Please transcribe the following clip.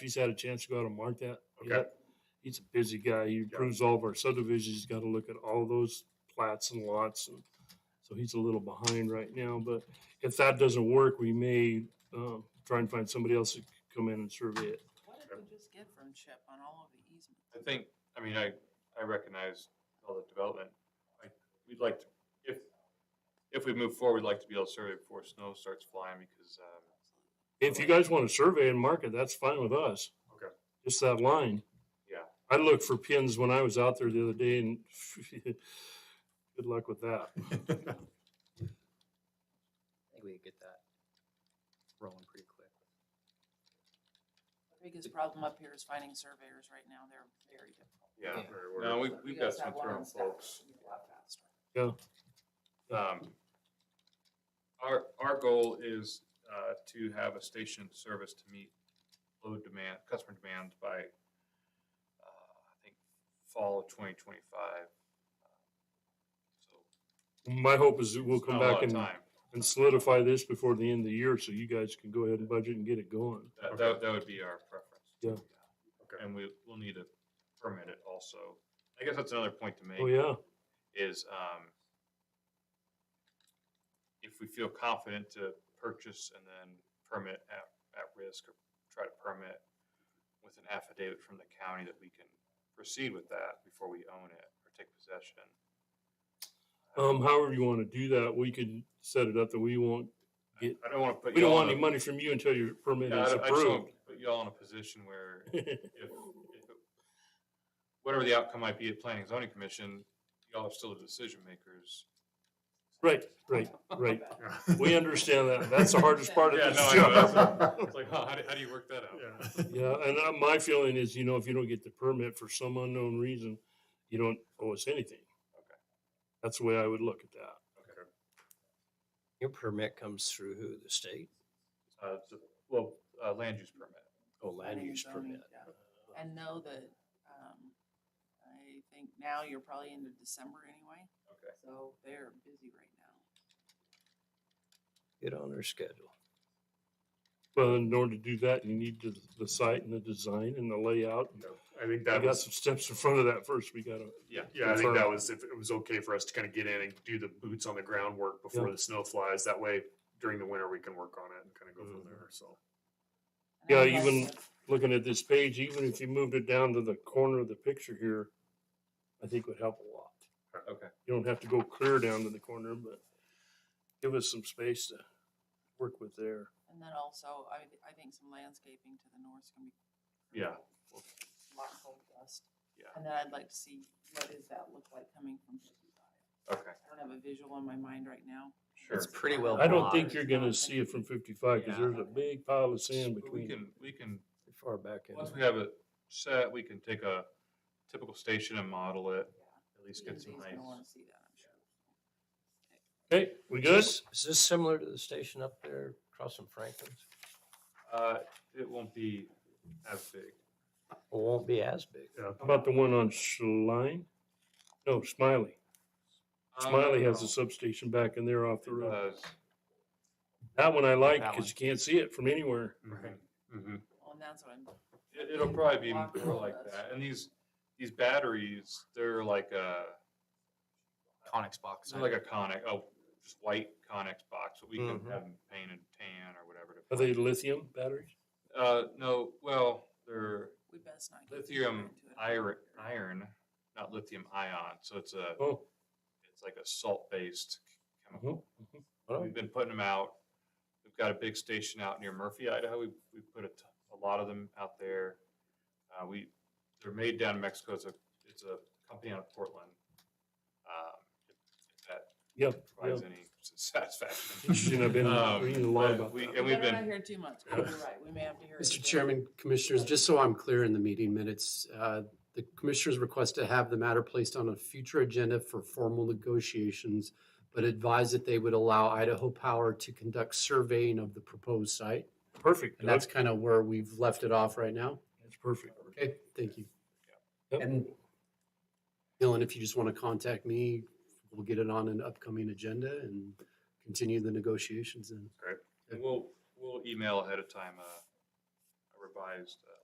he's had a chance to go out and mark that Okay. yet. He's a busy guy. He approves all of our subdivisions. He's got to look at all those plats and lots. And so he's a little behind right now. But if that doesn't work, we may um, try and find somebody else to come in and survey it. What did we just get from Chip on all of the easements? I think, I mean, I, I recognize all the development. I- We'd like to, if, if we move forward, we'd like to be able to survey before snow starts flying because, um, If you guys want to survey and mark it, that's fine with us. Okay. Just that line. Yeah. I looked for pins when I was out there the other day and good luck with that. I think we could get that rolling pretty quick. The biggest problem up here is finding surveyors right now. They're very difficult. yeah. Yeah. we're- we're- No, we, So if you we've got guys some have one internal on staff, folks. it'll be a lot faster. Um, Our, our goal is, uh, to have a station service to meet load demand, customer demand by, uh, I think, fall of twenty twenty-five. Uh, So My hope is that we'll it's come not a back lot of and time. and solidify this before the end of the year so you guys can go ahead and budget and get it going. That, that, that would be our preference. Yeah. Okay. And we, we'll need to permit it also. I guess that's another point to make. Oh, yeah. Is, um, if we feel confident to purchase and then permit at, at risk or try to permit with an affidavit from the county that we can proceed with that before we own it or take possession. Um, however you want to do that, we can set it up that we won't, I I don't wanna put. we don't y'all want in any a- money from you until your permit Yeah, I is don't- I just approved. don't Put y'all in a position where if, if, it- whatever the outcome might be at planning and zoning commission, y'all are still the decision makers. Right, right, right. We understand that. That's the hardest part of Yeah, this no, I know, that's job. It's like, huh, how do, how do you work that out? Yeah, and uh, my feeling is, you know, if you don't get the permit for some unknown reason, you don't owe us anything. Okay. That's the way I would look at that. Okay. Your permit comes through who? The state? Uh, so- well, uh, land use permit. Oh, land Planning and use zoning, permit. yeah. And know that, um, I think now you're probably into December anyway, Okay. so they're busy right now. Get on their schedule. But in order to do that, you need to, the site and the design and the layout and I think I that got was, some steps in front of that first. We gotta, Yeah. yeah, I think that confirmed. was, if it was okay for us to kind of get in and do the boots on the ground work before Yeah. the snow flies, that way during the winter, we can work on it and kind of go Mm-hmm. from there, so. And I Yeah, would like to- looking at this page, even if you moved it down to the corner of the picture here, I think would help a lot. Uh, Okay. You don't have to go clear down to the corner, but give us some space to work with there. And then also, I, I think some landscaping to the north is gonna be. Yeah. Lot of gold dust. Yeah. And then I'd like to see, what does that look like coming from fifty-five? Okay, I don't have a visual in my mind right now. sure. It's pretty well I don't blocked. think you're gonna see it from fifty-five, cause Yeah. there's a big pile of sand But We between. can, we can, Pretty Far back in. once there. we have it set, we can take a typical station and model it, at least get some Lindsay's nice. gonna wanna see that, I'm sure. Okay, we good? Is this- is this similar to the station up there across from Franklin's? Uh, it won't be as big. It won't be as big. How about the one on Schlein? No, Smiley. Oh, Smiley has a substation back in there Um, Uh, off the road. That one I like, That cause one. you can't see it from anywhere. Right. hmm Well, and that's what I'm, It, it'll probably be Lock more like doors. that. And these, these batteries, they're like a, Conex box. they're like a conic, oh, just white conic box, but we can Mhm. have them painted tan or whatever. to- Mm-hmm. Are they lithium batteries? Uh, no, well, they're we best not. get too far lithium into it. iron, iron, not lithium ion. So it's a, Oh. it's like a salt-based chemical. mhm, mhm. We've been putting them out. We've got a big station out near Murphy, Idaho. We, we put a, t- a lot of them out there. Uh, we, they're made down in Mexico. It's a, it's a company out of Portland. Um, if that Yep. provides yep. any satisfaction. Interesting. I've been Um, reading a lot but about we- that. And We we've better not been, hear too much, 'cause you're right, we may have to hear. it Mr. again. Chairman, Commissioners, just so I'm clear in the meeting minutes, uh, the Commissioners request to have the matter placed on a future agenda for formal negotiations, but advise that they would allow Idaho Power to conduct surveying of the proposed site. Perfect. And that's kind of where we've left it off right now. That's perfect. Okay, thank you. Yep. And Dylan, if you just want to contact me, we'll get it on an upcoming agenda and continue the negotiations then. and we'll, we'll email ahead of time, uh, a revised uh,